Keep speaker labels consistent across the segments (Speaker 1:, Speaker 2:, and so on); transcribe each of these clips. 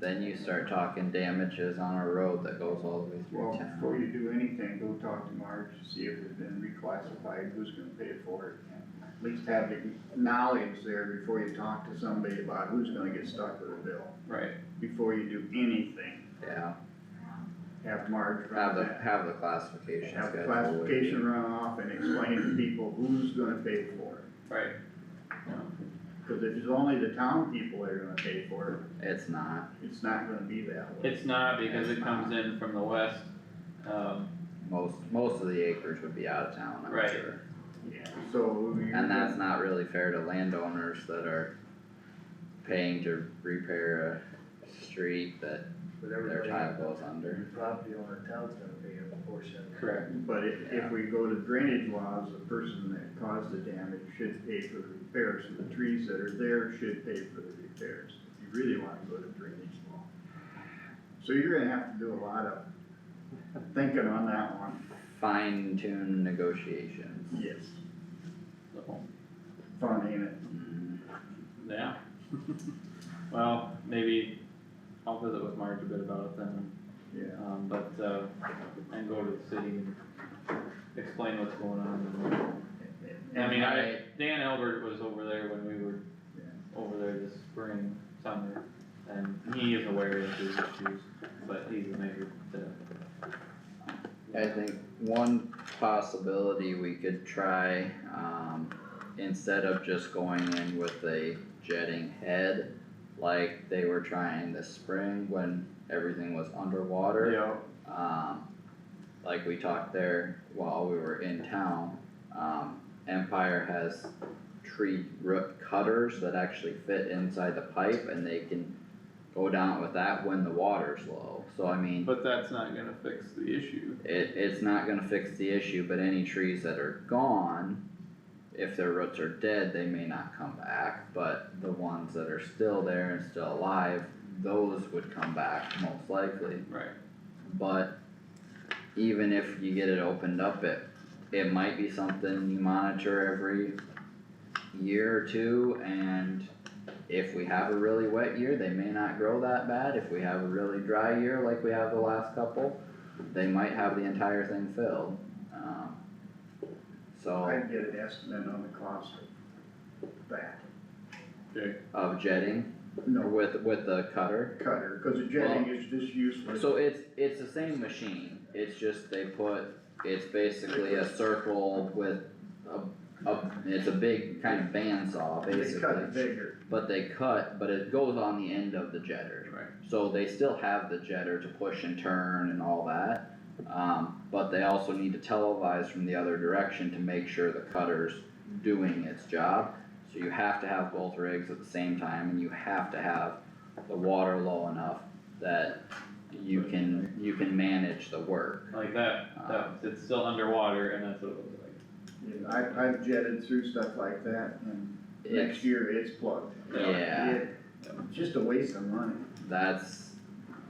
Speaker 1: then you start talking damages on a road that goes all the way
Speaker 2: Well,
Speaker 1: through
Speaker 2: before
Speaker 1: town.
Speaker 2: you do anything, go talk to Marge, see if it's been reclassified, who's gonna pay for it. and At least have the knowledge there before you talk to somebody about who's gonna get stuck with a bill.
Speaker 3: Right.
Speaker 2: Before you do anything,
Speaker 1: Yeah,
Speaker 2: have Marge run
Speaker 1: have the,
Speaker 2: that.
Speaker 1: have the classification
Speaker 2: Have the
Speaker 1: schedule.
Speaker 2: classification run off and explain to people who's gonna pay for it.
Speaker 3: Right.
Speaker 2: Cause if it's only the town people that are gonna pay for
Speaker 1: It's not,
Speaker 2: it, it's not gonna be that way.
Speaker 3: It's not because it comes in from the west, um,
Speaker 1: most, most of the acreage would be out of town, I'm
Speaker 3: Right.
Speaker 1: sure.
Speaker 2: Yeah, so. you're
Speaker 1: And that's not really fair to landowners that are paying to repair a street that
Speaker 4: But
Speaker 1: their
Speaker 4: everybody,
Speaker 1: tile goes under.
Speaker 4: the property owner, town's gonna pay a portion. of it.
Speaker 3: correct,
Speaker 2: But if,
Speaker 1: Yeah.
Speaker 2: if we go to drainage laws, the person that caused the damage should pay for the repairs, so the trees that are there should pay for the repairs, if you really wanna go to drainage law. So you're gonna have to do a lot of thinking on that one,
Speaker 1: Fine tune negotiations.
Speaker 2: yes,
Speaker 3: so,
Speaker 2: fun, ain't it?
Speaker 1: Mhm.
Speaker 3: yeah. Well, maybe I'll visit with Marge a bit about it then,
Speaker 2: Yeah,
Speaker 3: um, but, uh, and go to the city and explain what's going on. I mean, I, Dan Albert was over there when we were over there this spring, summer, and he is aware of these issues, but he's a major, uh.
Speaker 1: I think one possibility we could try, um, instead of just going in with a jetting head, like they were trying this spring when everything was underwater.
Speaker 3: Yeah.
Speaker 1: um, like we talked there while we were in town, um, Empire has tree root cutters that actually fit inside the pipe and they can go down with that when the water's low, so I mean,
Speaker 3: But that's not gonna fix the issue.
Speaker 1: it, it's not gonna fix the issue, but any trees that are gone, if their roots are dead, they may not come back, but the ones that are still there and still alive, those would come back most likely.
Speaker 3: Right.
Speaker 1: But even if you get it opened up, it, it might be something you monitor every year or two and if we have a really wet year, they may not grow that bad. If we have a really dry year like we have the last couple, they might have the entire thing filled. Um, So
Speaker 2: I'd get an estimate on the cost of that,
Speaker 1: of jetting or
Speaker 2: no
Speaker 1: with, with the cutter.
Speaker 2: cutter, cause the jetting is just useless.
Speaker 1: So it's, it's the same machine, it's just they put, it's basically a circle with a, a, it's a big kind of bandsaw
Speaker 2: They cut it
Speaker 1: basically.
Speaker 2: bigger,
Speaker 1: But they cut, but it goes on the end of the jetter.
Speaker 3: Right.
Speaker 1: So they still have the jetter to push and turn and all that. Um, but they also need to televise from the other direction to make sure the cutter's doing its job. So you have to have both rigs at the same time and you have to have the water low enough that you can, you can manage the work. Um,
Speaker 3: Like that, that, it's still underwater and that's what it looks like.
Speaker 2: Yeah, I, I've jetted through stuff like that, and next
Speaker 1: It's-
Speaker 2: year it's plugged.
Speaker 1: Yeah,
Speaker 2: It- Just a waste of money.
Speaker 1: that's,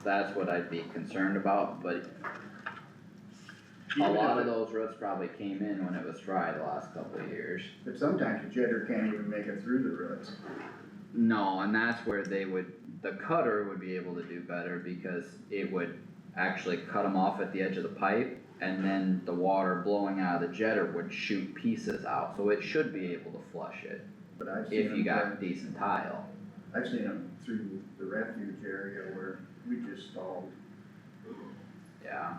Speaker 1: that's what I'd be concerned about, but a
Speaker 2: Even
Speaker 1: lot of
Speaker 2: if
Speaker 1: those roots probably came in when it was dry the last couple of years.
Speaker 2: it- But sometimes the jetter can't even make it through the roots.
Speaker 1: No, and that's where they would, the cutter would be able to do better because it would actually cut them off at the edge of the pipe. And then the water blowing out of the jetter would shoot pieces out, so it should be able to flush it
Speaker 2: But I've seen
Speaker 1: if you
Speaker 2: them,
Speaker 1: got decent tile.
Speaker 2: I've seen them through the refuge area where we just stalled.
Speaker 1: Yeah,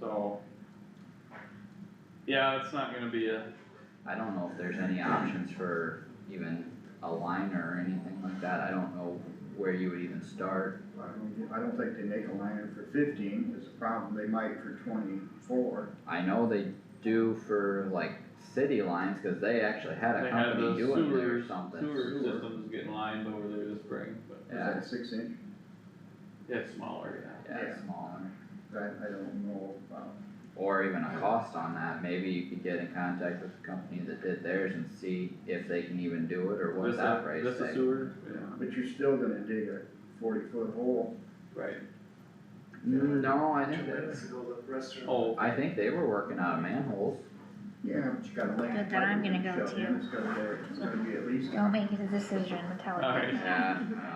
Speaker 3: So. Yeah, it's not gonna be a,
Speaker 1: I don't know if there's any options for even a liner or anything like that. I don't know where you would even start.
Speaker 2: I don't, I don't think they make a liner for fifteen is a problem. They might for twenty-four.
Speaker 1: I know they do for like city lines, cause they actually had
Speaker 3: they
Speaker 1: a
Speaker 3: had
Speaker 1: company
Speaker 3: the
Speaker 1: doing it
Speaker 3: sewer,
Speaker 1: or something.
Speaker 3: sewer
Speaker 2: Sewer.
Speaker 3: systems getting lined over there this spring, but
Speaker 2: Is
Speaker 1: Yeah.
Speaker 2: that six inch?
Speaker 3: it's smaller, yeah.
Speaker 1: Yeah,
Speaker 2: Yeah.
Speaker 1: smaller,
Speaker 2: I, I don't know about.
Speaker 1: or even a cost on that, maybe you could get in contact with the company that did theirs and see if they can even do it, or what
Speaker 3: This
Speaker 1: that
Speaker 3: a-
Speaker 1: price
Speaker 3: This a
Speaker 1: tag.
Speaker 3: sewer,
Speaker 2: But you're still gonna dig a forty-foot hole.
Speaker 3: right,
Speaker 1: Mm, No, I
Speaker 4: Two
Speaker 1: think
Speaker 4: minutes
Speaker 1: that's,
Speaker 4: ago, the restaurant.
Speaker 3: oh,
Speaker 1: I think they were working out of manholes,
Speaker 2: Yeah, but you gotta lay.
Speaker 5: But then I'm gonna go
Speaker 2: Shove it in,
Speaker 5: too.
Speaker 2: It's gonna, be- it's gonna be at least
Speaker 5: Don't make a decision, Metallica.
Speaker 3: Alright.
Speaker 1: yeah,